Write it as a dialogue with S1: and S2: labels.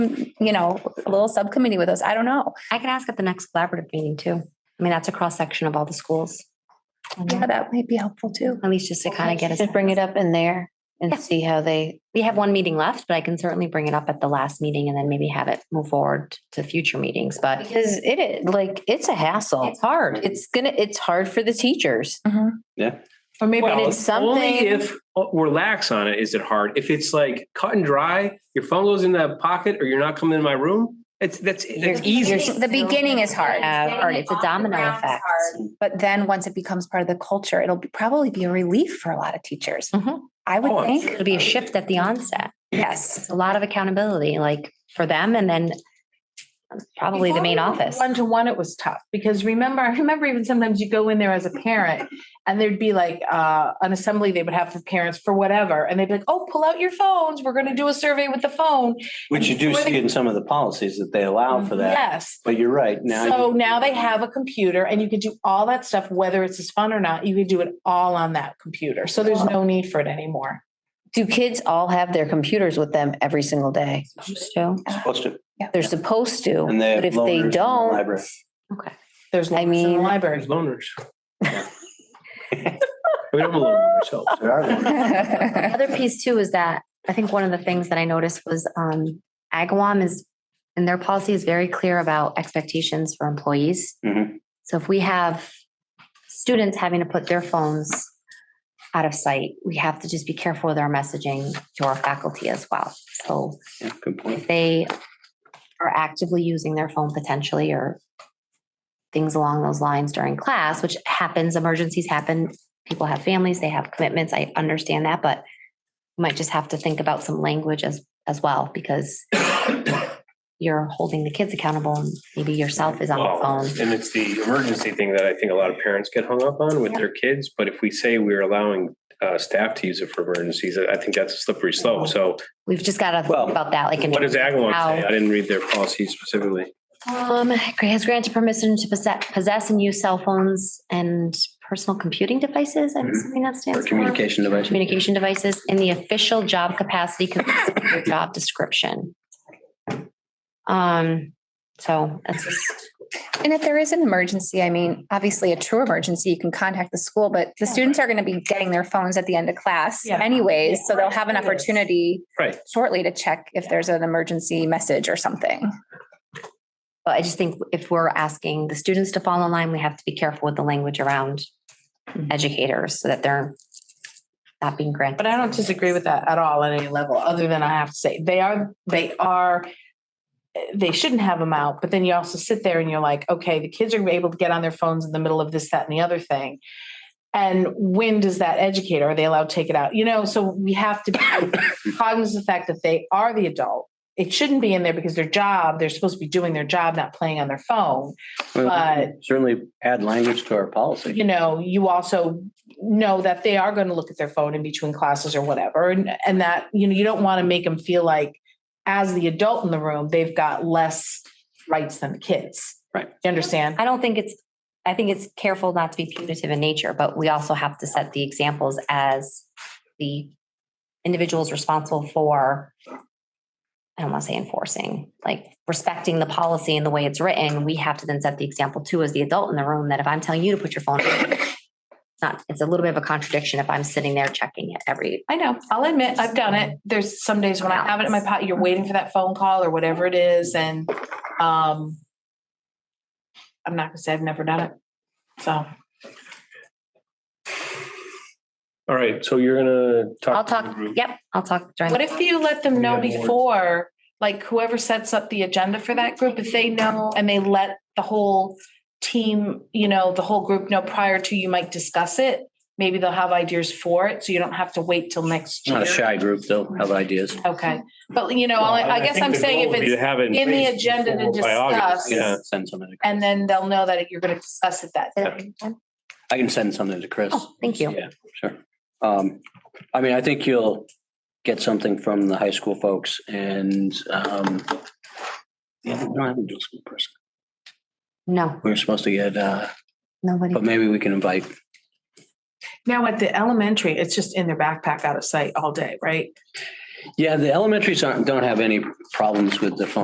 S1: you know, a little subcommittee with us. I don't know.
S2: I can ask at the next collaborative meeting too. I mean, that's a cross section of all the schools.
S1: Yeah, that might be helpful too.
S2: At least just to kind of get us.
S3: Just bring it up in there and
S2: Yeah.
S3: see how they,
S2: We have one meeting left, but I can certainly bring it up at the last meeting and then maybe have it move forward to future meetings. But
S3: because it is, like, it's a hassle.
S2: it's hard. Mm-hmm.
S3: It's gonna, it's hard for the teachers.
S4: Or maybe
S3: But
S4: Well,
S3: it's
S4: Only
S3: something,
S4: if we're lax on it is it hard. If it's like cut and dry, your phone goes in that pocket or you're not coming in my room, it's that's that's easy.
S1: The beginning is hard.
S2: Have- or it's a domino effect.
S1: But then once it becomes part of the culture, it'll be- probably be a relief for a lot of teachers.
S5: Mm-hmm.
S2: Mhm.
S1: I
S4: Oh,
S1: would
S4: I'm
S1: think,
S4: sure.
S2: It'll be a shift at the onset.
S1: yes.
S2: It's a lot of accountability, like for them and then probably the main office.
S5: One to one, it was tough because remember, I remember even sometimes you go in there as a parent and there'd be like uh, an assembly they would have for parents for whatever. And they'd be like, oh, pull out your phones. We're going to do a survey with the phone.
S6: Which you do see in some of the policies that they allow for that.
S5: Yes.
S6: But you're right now.
S5: Mm-hmm. so
S6: you-
S5: now they have a computer and you could do all that stuff, whether it's as fun or not. You could do it all on that computer. So there's no need for it anymore.
S3: do kids all have their computers with them every single day?
S2: So,
S6: Supposed to,
S3: They're supposed to,
S6: and they. have
S3: but if
S6: loaners
S3: they
S6: in the
S3: don't,
S6: library.
S2: okay.
S5: There's lots in
S3: mean-
S5: the
S4: There's
S5: library.
S4: loners. We don't belong to ourselves.
S6: There are loaners.
S1: Yes.
S2: Other piece too is that I think one of the things that I noticed was um Agawam is and their policy is very clear about expectations for employees.
S6: Mhm.
S2: So if we have students having to put their phones out of sight, we have to just be careful with our messaging to our faculty as well. So
S6: Yeah, Good point.
S2: if they are actively using their phone potentially or things along those lines during class, which happens, emergencies happen. People have families, they have commitments. I understand that, but we might just have to think about some language as, as well, because you're holding the kids accountable and maybe yourself is on the
S4: Well,
S2: phone.
S4: And it's the emergency thing that I think a lot of parents get hung up on with their kids. But if we say we're allowing uh, staff to use it for emergencies, I think that's a slippery slope. So
S2: We've just got to
S6: Well,
S2: think about that, like. in
S4: what does Agawam say?
S2: how-
S4: I didn't read their policy specifically.
S2: Um, has granted permission to possess, possess and use cell phones and personal computing devices. I'm
S6: Mhm.
S2: assuming that stands
S6: Or
S2: for.
S6: communication device.
S2: communication devices in the official job capacity consistent with your job description. Um, so that's just,
S1: And if there is an emergency, I mean, obviously a true emergency, you can contact the school, but the students are going to be getting their phones at the end of class
S5: Yeah.
S1: anyways. So they'll have an
S5: Yes.
S1: opportunity
S4: Right.
S1: shortly to check if there's an emergency message or something.
S2: but I just think if we're asking the students to fall in line, we have to be careful with the language around educators so that they're not being granted.
S5: But I don't disagree with that at all at any level, other than I have to say, they are, they are, they shouldn't have them out, but then you also sit there and you're like, okay, the kids are able to get on their phones in the middle of this, that, and the other thing. And when does that educator, are they allowed to take it out? You know, so we have to be cognizant of the fact that they are the adult. It shouldn't be in there because their job, they're supposed to be doing their job, not playing on their phone.
S6: Well, Certainly add language to our policy.
S5: you know, you also know that they are going to look at their phone in between classes or whatever. And, and that, you know, you don't want to make them feel like as the adult in the room, they've got less rights than the kids.
S6: Right.
S5: You understand?
S2: I don't think it's, I think it's careful not to be punitive in nature, but we also have to set the examples as the individuals responsible for, I don't want to say enforcing, like respecting the policy and the way it's written. We have to then set the example too as the adult in the room that if I'm telling you to put your phone, down, it's not, it's a little bit of a contradiction if I'm sitting there checking it every,
S5: I know. I'll admit I've done it. There's some days when I have it in my pot, you're waiting for that phone call or whatever it is. And, um, I'm not gonna say I've never done it. So.
S4: All right. So you're going to talk.
S2: I'll
S4: to the
S2: talk,
S4: group.
S2: yep, I'll talk during.
S5: What if you let them know
S4: Yeah, more.
S5: before, like whoever sets up the agenda for that group, if they know and they let the whole team, you know, the whole group know prior to you might discuss it, maybe they'll have ideas for it, so you don't have to wait till next
S6: Not a
S5: year.
S6: shy group, they'll have ideas.
S5: Okay, but you know, I I guess
S4: think
S5: I'm
S4: the goal
S5: saying
S4: would
S5: if
S4: be to
S5: it's,
S4: have it
S5: in the
S4: place
S5: agenda to
S4: by August.
S5: discuss.
S4: Yeah.
S6: Send something to,
S5: and then they'll know that you're gonna discuss it that.
S6: I can send something to Chris.
S2: Oh, thank you.
S6: Yeah, sure. Um, I mean, I think you'll get something from the high school folks and, um, yeah, we don't have a dual school person.
S2: No,
S6: We We're supposed to get, uh,
S2: nobody.
S6: but maybe we can invite,
S5: Now, at the elementary, it's just in their backpack out of sight all day, right?
S6: Yeah, the elementaries aren't, don't have any problems with the phone.